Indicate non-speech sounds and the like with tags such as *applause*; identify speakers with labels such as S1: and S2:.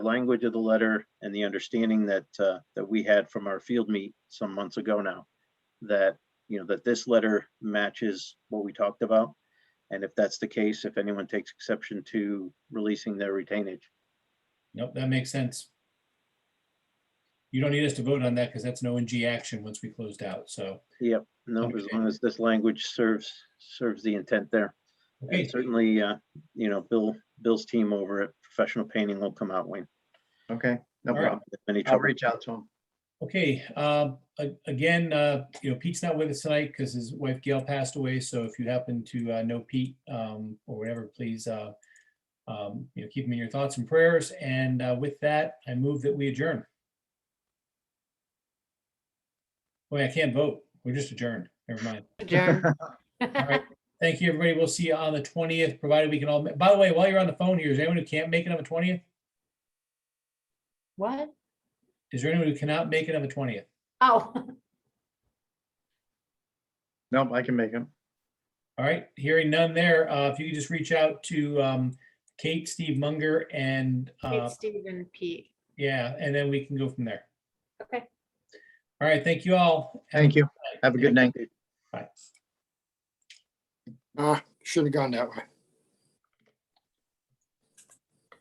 S1: language of the letter and the understanding that, uh, that we had from our field meet some months ago now, that, you know, that this letter matches what we talked about. And if that's the case, if anyone takes exception to releasing their retainage,
S2: Nope, that makes sense. You don't need us to vote on that because that's an ONG action once we closed out, so.
S1: no, as
S2: Understand.
S1: long as this language serves, serves the intent there.
S2: Okay,
S1: And certainly, uh, you know, Bill, Bill's team over at Professional Painting will come out, Wayne.
S3: Okay, no
S2: All right.
S3: problem.
S1: if Any
S3: I'll
S1: trouble?
S3: reach out to him.
S2: okay, um, a- again, uh, you know, Pete's not with us tonight because his wife Gail passed away, so if you happen to uh, know Pete um, or whatever, please, uh, um, you know, keep him in your thoughts and prayers, and uh, with that, I move that we adjourn. Wait, I can't vote. We're just adjourned. Never mind.
S4: Adjourn.
S2: All right. Thank you, everybody. We'll see you on the twentieth, provided we can all, by the way, while you're on the phone here, is there anyone who can't make it on the twentieth?
S4: What?
S2: Is there anyone who cannot make it on the twentieth?
S4: Oh, *laughs*
S3: Nope, I can make him.
S2: All right, hearing none there. Uh, if you could just reach out to, um, Kate, Steve Munger and, uh,
S4: it's Stephen Pete.
S2: yeah, and then we can go from there.
S4: Okay.
S2: All right, thank you all.
S3: Thank you. Have a good night.
S2: Bye.
S5: Ah, should have gone that way.